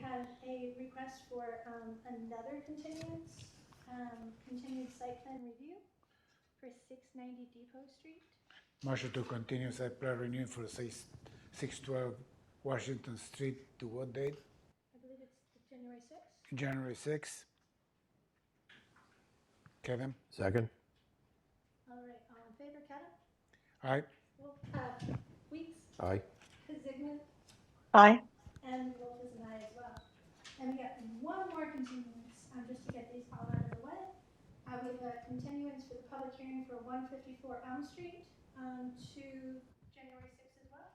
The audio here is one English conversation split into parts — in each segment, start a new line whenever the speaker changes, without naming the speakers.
had a request for um, another continuance, um, continued site plan review for 690 Depot Street.
Motion to continue site plan renewal for six, six twelve Washington Street to what date?
I believe it's January 6th.
January sixth? Kevin?
Second?
All right, all in favor, Kevin?
Aye.
Wolf, uh, Weeks,
Aye.
Zigman,
aye.
and Wolf is an aye as well. And we got one more continuance, um, just to get these all out of the way. Uh, we have a continuance for the public hearing for one fifty-four Elm Street, um, to January sixth as well.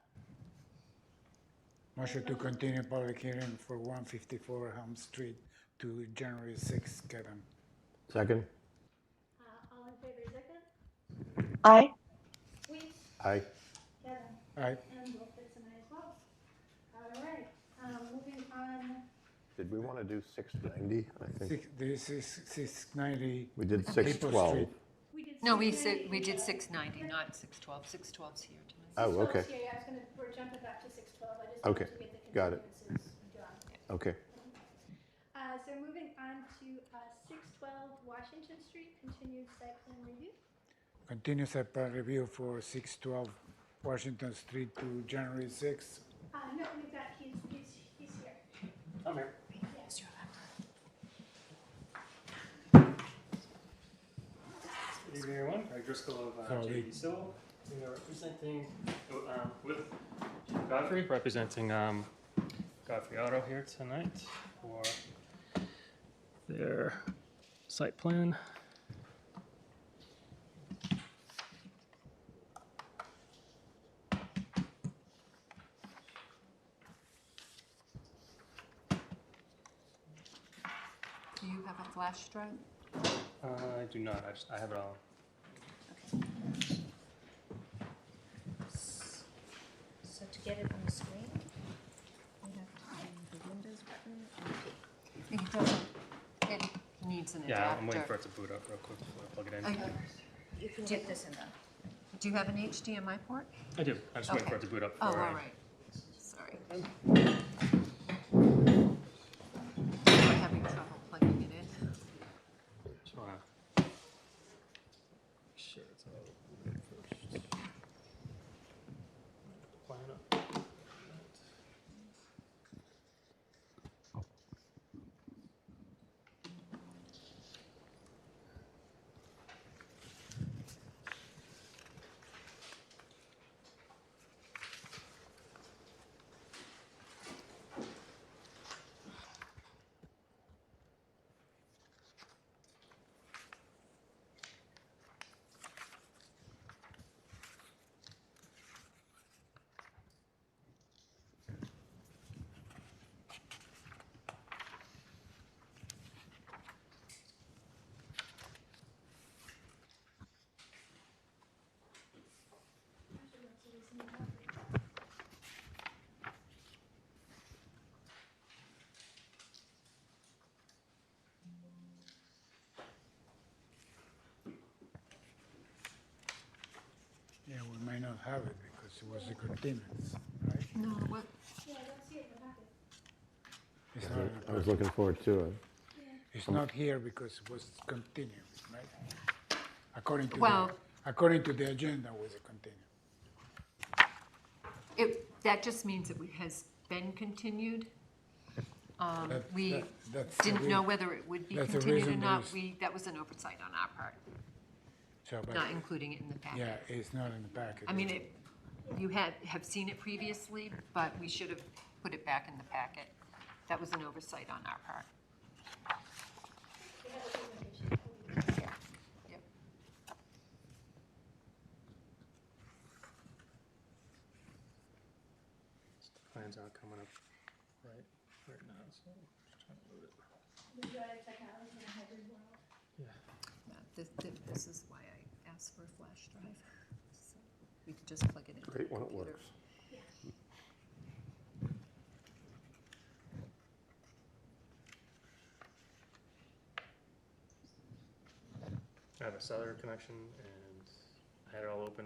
Motion to continue public hearing for one fifty-four Helm Street to January sixth, Kevin.
Second?
Uh, all in favor, Zigman,
Aye,
Weeks,
Aye.
Kevin,
Aye.
and Wolf is an aye as well. All right, um, moving on,
Did we want to do 690? I think
Six, this is six ninety.
we did
Maple
612.
Street.
we did.
No, we
690,
said, we did
uh,
690, not 612. 612's here tonight.
Oh,
612 's
okay,
here. I was gonna, we're jumping back to six twelve, I just
Okay,
wanted to get the
got it.
continuances done.
okay.
Uh, so moving on to, uh, six twelve Washington Street, continued site plan review.
Continue site plan review for six twelve Washington Street to January sixth.
Uh, no, we've got, he's, he's, he's here.
Good evening, everyone. Greg Driscoll of uh,
Howdy.
JD Civil. We are representing, oh, um, with Godfrey, representing um, Godfrey Auto here tonight for their site plan.
Do you have a flash drive?
Uh, I do not, I just, I have it all.
So to get it on the screen, we have to do the Windows button and P.
It doesn't, it needs an
Yeah, I'm waiting for
adapter.
it to boot up real quick before I plug it in.
Okay.
You can get this in the.
Do you have an HDMI port?
I do, I'm just waiting
Okay.
for it to boot up.
Oh, all
before I-
right. Sorry. We're having trouble plugging it in.
Just wanna make Sure, it's all good first. Line up.
Yeah, we may not have it because it was a continuance, right?
No, what,
Yeah, I don't see it in the packet.
It's not,
I was looking forward to it.
it's not here because it was continued, right? According to, the
Well-
according to the agenda, was a continued.
it, that just means it has been continued. Um,
That-
We
that- that's the
didn't know
rea-
whether it would be
that's the
continued or
reason
not.
there's-
We, that was an oversight on our part,
So, but,
not including it in the packet.
yeah, it's not in the packet.
I mean, it, you had, have seen it previously, but we should have put it back in the packet. That was an oversight on our part.
We have a presentation.
Yeah. Yep.
Plans aren't coming up right, right now, so I'm just trying to load it.
We go to technology and hybrid world.
Yeah, This, this- this is why I asked for a flash drive. So We could just plug it in.
Great when it works.
I have a cellular connection and I had it all open